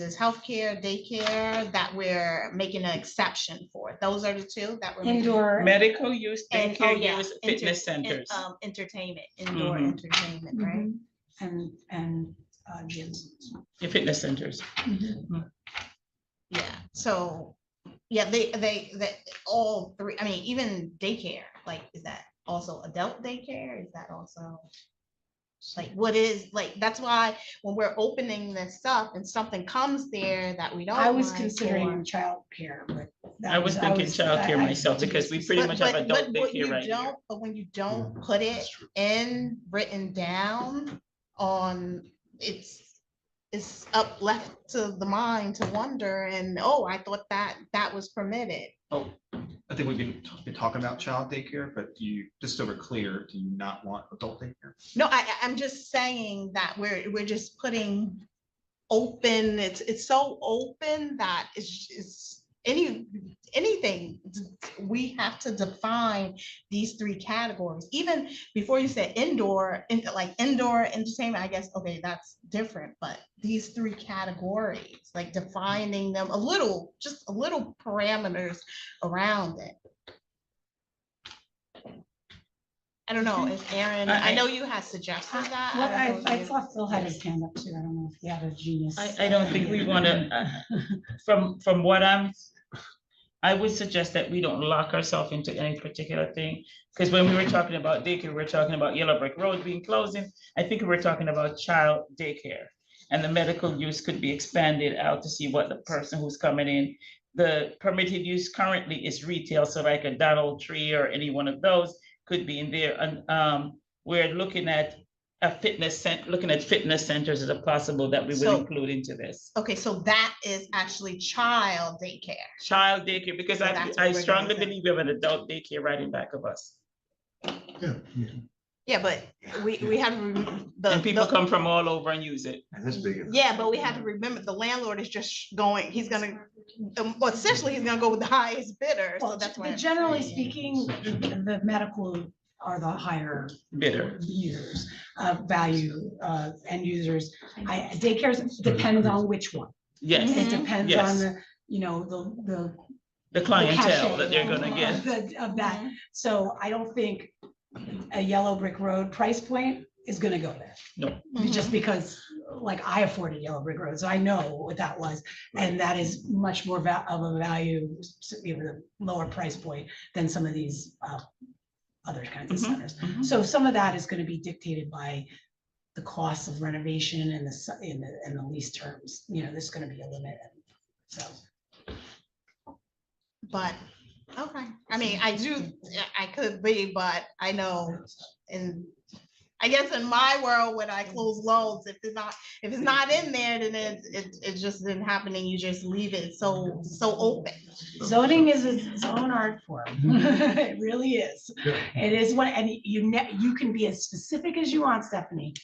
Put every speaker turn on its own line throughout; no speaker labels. is healthcare, daycare, that we're making an exception for. Those are the two that we're. making-
Indoor,
Medical use,
And, oh,
daycare
yeah,
use,
enter-
fitness
en-
centers.
um, Entertainment, indoor
Mhm.
entertainment, right?
Mhm. and, and uh, gyms.
Yeah, fitness centers.
Yeah, so, yeah, they, they, that, all three, I mean, even daycare, like, is that also adult daycare? Is that also? Like, what is, like, that's why when we're opening this up and something comes there that we don't.
I was
like,
considering
or-
childcare, but. that
I was thinking
I-
childcare
I-
myself because we pretty
But,
much have
but,
adult
but what you
daycare right here.
don't, but when you don't put it in, written down on, it's, it's up left to the mind to wonder and, oh, I thought that, that was permitted.
Oh, I think we've been, t- been talking about child daycare, but do you, just so we're clear, do you not want adult daycare?
No, I, I- I'm just saying that we're, we're just putting open, it's, it's so open that it's, it's any, anything. We have to define these three categories, even before you said indoor, in- like indoor entertainment, I guess, okay, that's different, but these three categories, like defining them a little, just a little parameters around it. I don't know, if Aaron, I
I-
know you had suggested that.
Well,
I
I,
don't know
I
if you-
thought Phil had his hand up too. I don't know if he had a genius.
I, I don't think we want to, from, from what I'm, I would suggest that we don't lock ourselves into any particular thing. Because when we were talking about daycare, we we're talking about Yellow Brick Road being closing. I think we we're talking about child daycare. And the medical use could be expanded out to see what the person who's coming in. The permitted use currently is retail, so like a Donald Tree or any one of those could be in there. And, um, we're looking at a fitness cent, looking at fitness centers as a possible that we
So-
will include into this
Okay, so that is actually child daycare.
child daycare, because
So
I,
that's what
I
we're gonna
strongly
say.
believe we have an adult daycare right in back of us.
Yeah.
Yeah, but we, we had to rem- the.
And people
the-
come from all over and use it.
And that's big.
Yeah, but we have to remember the landlord is just going, he's gonna, um, well, essentially, he's gonna go with the highest bidder, so
Well,
that's why.
but
I'm
generally
saying.
speaking, the the medical are the higher
Bitter.
users, uh, value, uh, end users. I, daycares depends on which one.
Yes,
Mhm.
It depends on
Yes.
the, you know, the, the. the
the clientele
cachet
that they're gonna
of
get.
the- Of that. So I don't think a yellow brick road price point is gonna go there.
Mhm.
just because, like, I afforded Yellow Brick Road, so I know what that was. And that is much more va- of a value, s- you know, the lower price point than some of these uh, other kinds of
Mhm,
centers.
Mm-hmm.
mhm.
So some of that is gonna be dictated by the cost of renovation and the, s- and the, and the lease terms, you know, there's gonna be a limit. So,
But, okay, I mean, I do, I could be, but I know in, I guess in my world, when I close loads, if it's not, if it's not in there, then it, it, it just didn't happen and you just leave it so, so open.
zoning is its own art form, it really is.
Yeah.
It is what, and you ne, you can be as specific as you want, Stephanie.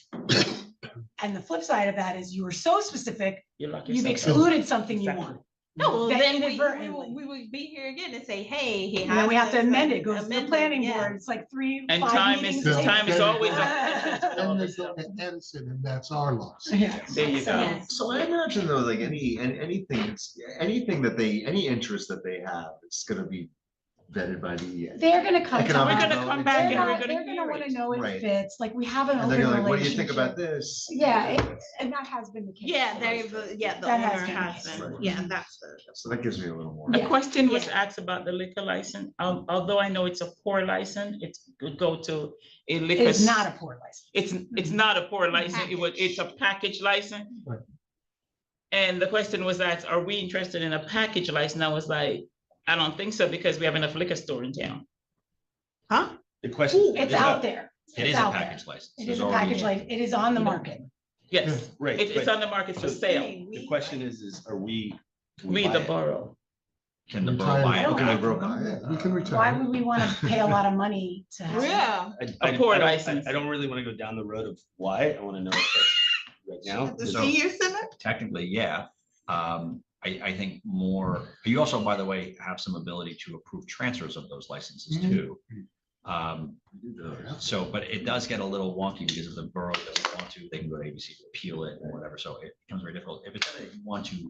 And the flip side of that is you were so specific,
You lock
you've
yourself out.
excluded something you wanted.
No, well,
That
then we- we,
inadvertently.
would- we would be here again and say, hey. he
And then we
has
have to
this,
amend
like,
it, goes to the
amendment,
planning
yeah.
board, it's like three,
And
five
time is,
meetings.
meetings
time is
later.
always.
Then they
a-
go to Edison and that's our loss.
later.
There you go.
Yes.
So I imagine though, like any, and anything, it's, anything that they, any interest that they have, it's gonna be vetted by the.
They're gonna come to
We're
Economic
us.
gonna come
development.
back
They're
and
not-
we're
they're
gonna
gonna
hear
wanna
it.
know it
Right.
fits, like, we have an
And
open
they're gonna like,
relationship.
what do you think about this?
Yeah, it- And that has been the case.
Yeah, they, the- yeah, the
That has
owner
been the
has
case.
been,
Right.
yeah, that's the.
So that gives me a little more.
A question was
Yeah.
asked about the liquor license. Al- Although I know it's a poor license, it could go to a liquor.
It's not a poor license.
It's, it's not a poor license, it was, it's a package license.
Right.
And the question was asked, are we interested in a package license? I was like, I don't think so, because we have enough liquor store in town.
Huh?
The question.
It's
is a-
out there.
It
It's
is a
out there.
package license.
It
There's
is a
already-
package license, it is on the market.
Yes,
Right,
it- it's
but
on the market for
So-
sale.
the question is, is are we? can
We,
buy
the
it?
borough.
Can the
Retire-
borough buy
I
it?
don't
Okay,
know.
bro.
We
Uh,
can
Why
retire.
would we want to pay a lot of money to have?
Yeah.
I- I-
poor
I don't- I-
license.
I don't really want to go down the road of why. I want to know. if that's Right now.
The
is-
So-
senior center?
technically, yeah. Um, I, I think more, you also, by the way, have some ability to approve transfers of those licenses
Mm-hmm.
Mhm.
too. Um, so, but it does get a little wonky because if the borough doesn't want to, they can go to ABC to appeal it or whatever. So it becomes very difficult. If it's something that you want to